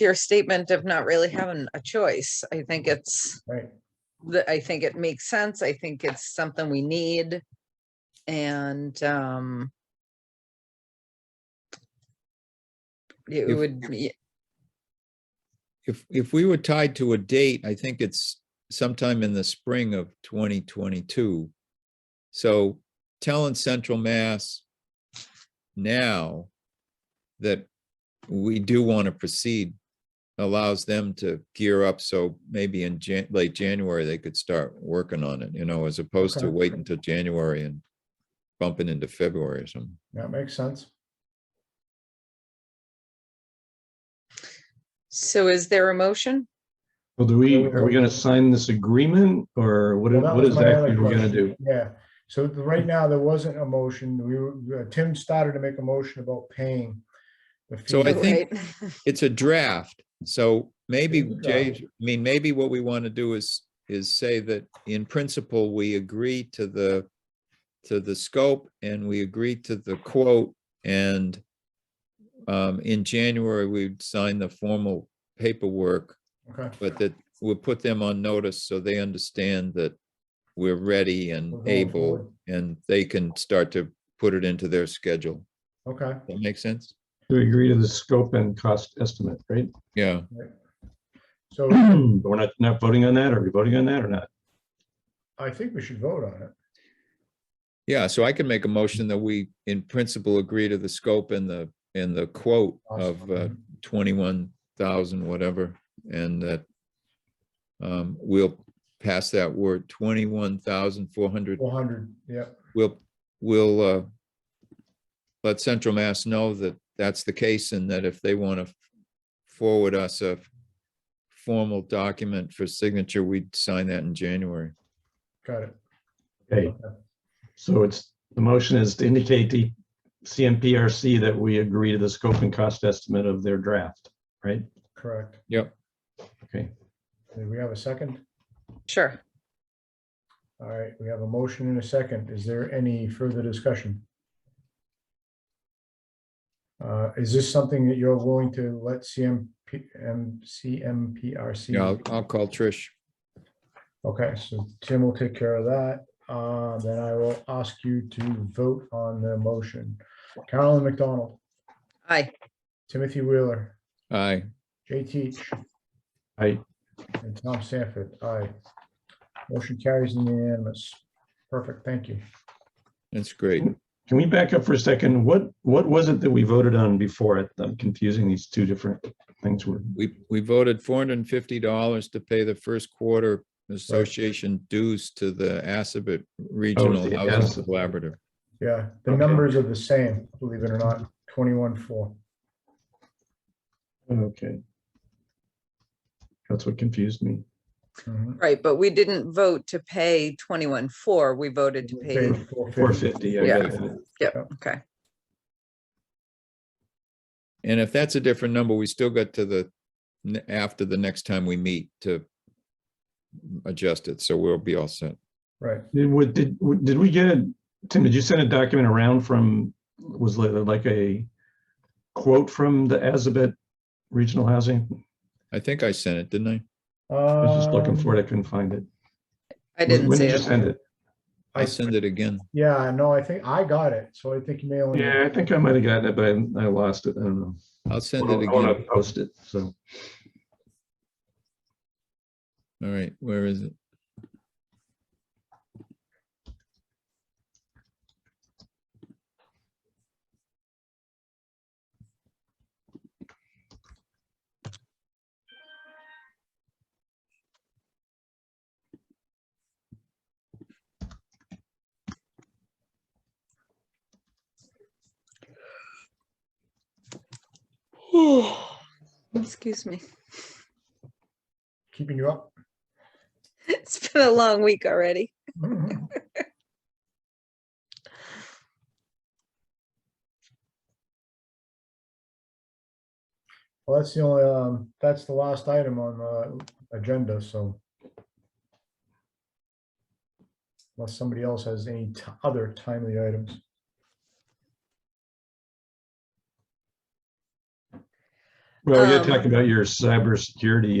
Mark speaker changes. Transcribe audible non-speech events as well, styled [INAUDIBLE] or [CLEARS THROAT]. Speaker 1: your statement of not really having a choice. I think it's,
Speaker 2: Right.
Speaker 1: the, I think it makes sense. I think it's something we need. And, um, it
Speaker 3: If-
Speaker 1: would, be-
Speaker 3: If, if we were tied to a date, I think it's sometime in the spring of 2022. So telling Central Mass now that we do want to proceed allows them to gear up. So maybe in Jan, late January, they could start working on it, you know, as opposed to
Speaker 2: Okay.
Speaker 3: waiting until January and bumping into February or something.
Speaker 2: That makes sense.
Speaker 1: so is there a motion?
Speaker 4: Well, do we,
Speaker 2: Well,
Speaker 4: are we gonna sign this agreement or what,
Speaker 2: Well, that
Speaker 4: what
Speaker 2: was
Speaker 4: is
Speaker 2: my other
Speaker 4: that we're gonna
Speaker 2: question.
Speaker 4: do?
Speaker 2: Yeah, so th- right now, there wasn't a motion. We were, uh, Tim started to make a motion about paying. the
Speaker 3: So I
Speaker 2: fee.
Speaker 3: think-
Speaker 1: Right.
Speaker 3: it's a draft, so maybe,
Speaker 2: It's a
Speaker 3: Jay,
Speaker 2: draft.
Speaker 3: I mean, maybe what we want to do is, is say that in principle, we agree to the, to the scope and we agree to the quote and um, in January, we'd sign the formal paperwork,
Speaker 2: Okay,
Speaker 3: but that we'll put them on notice so they understand that we're ready
Speaker 2: We're
Speaker 3: and
Speaker 2: going
Speaker 3: able
Speaker 2: forward.
Speaker 3: and they can start to put it into their schedule.
Speaker 2: okay.
Speaker 3: That make sense?
Speaker 4: To agree to the scope and cost estimate, right? [CLEARS THROAT]
Speaker 3: Yeah,
Speaker 2: So
Speaker 4: But we're not, not voting on that. Are we voting on that or not?
Speaker 2: I think we should vote on it.
Speaker 3: Yeah, so I can make a motion that we, in principle, agree to the scope and the, and the quote of uh,
Speaker 2: Awesome.
Speaker 3: twenty-one thousand, whatever, and that um, we'll pass that word, twenty-one thousand four hundred,
Speaker 2: Four hundred, yeah,
Speaker 3: we'll, we'll uh, let Central Mass know that that's the case and that if they want to forward us a formal document for signature, we'd sign that in January.
Speaker 2: got it.
Speaker 4: Okay, so it's, the motion is to indicate to CMPRC that we agree to the scope and cost estimate of their draft, right?
Speaker 2: Correct.
Speaker 4: Okay,
Speaker 2: Do we have a second?
Speaker 1: Sure.
Speaker 2: All right, we have a motion and a second. Is there any further discussion? Uh, Is this something that you're willing to let CMP, um, CMPRC?
Speaker 3: Yeah, I'll, I'll call Trish.
Speaker 2: Okay, so Tim will take care of that. Uh, Then I will ask you to vote on the motion. Carolyn McDonald,
Speaker 1: Aye.
Speaker 2: Timothy Wheeler,
Speaker 3: Aye.
Speaker 2: Jay Teach,
Speaker 4: I,
Speaker 2: and Tom Sanford. Aye. Motion carries unanimous. Perfect, thank you.
Speaker 3: That's great.
Speaker 4: can we back up for a second? What, what was it that we voted on before? I'm confusing these two different things. We're
Speaker 3: We, we voted four hundred and fifty dollars to pay the first quarter association dues to the Assabet Regional
Speaker 4: Oh, the
Speaker 3: Housing
Speaker 4: Assabet.
Speaker 3: Collaborative.
Speaker 2: Yeah, the
Speaker 4: Okay.
Speaker 2: numbers are the same, believe it or not, twenty-one, four.
Speaker 4: Okay. That's what confused me.
Speaker 2: Mm-hmm.
Speaker 1: Right, but we didn't vote to pay twenty-one four. We voted to pay,
Speaker 4: Four fifty, I
Speaker 1: Yeah.
Speaker 4: got it.
Speaker 1: okay.
Speaker 3: And if that's a different number, we still got to the, n- after the next time we meet to adjust it, so we'll be all set.
Speaker 2: Right,
Speaker 4: Did, what, did, what- did we get, a- Tim, did you send a document around from, was like, like a quote from the Azabet Regional Housing?
Speaker 3: I think I sent it, didn't I?
Speaker 4: I was just looking
Speaker 2: Um,
Speaker 4: for it, I couldn't find it.
Speaker 1: I didn't
Speaker 4: When
Speaker 1: see
Speaker 4: did you
Speaker 1: it.
Speaker 4: send it?
Speaker 2: I-
Speaker 3: I'll send it again.
Speaker 2: Um, yeah, no, I think I got it, so I think you may only.
Speaker 4: Yeah, I think I might have gotten it, but I I lost it, I don't know.
Speaker 3: I'll send it
Speaker 4: I want to
Speaker 3: again.
Speaker 4: post it, so.
Speaker 3: All right, where is it?
Speaker 1: Excuse me.
Speaker 2: Keeping you up.
Speaker 1: [LAUGHS] It's been a long week already.
Speaker 2: Well, that's the only, um, that's the last item on the agenda, so. Unless somebody else has any t- other timely items.
Speaker 4: Well, you're
Speaker 1: Um,
Speaker 4: talking about your cybersecurity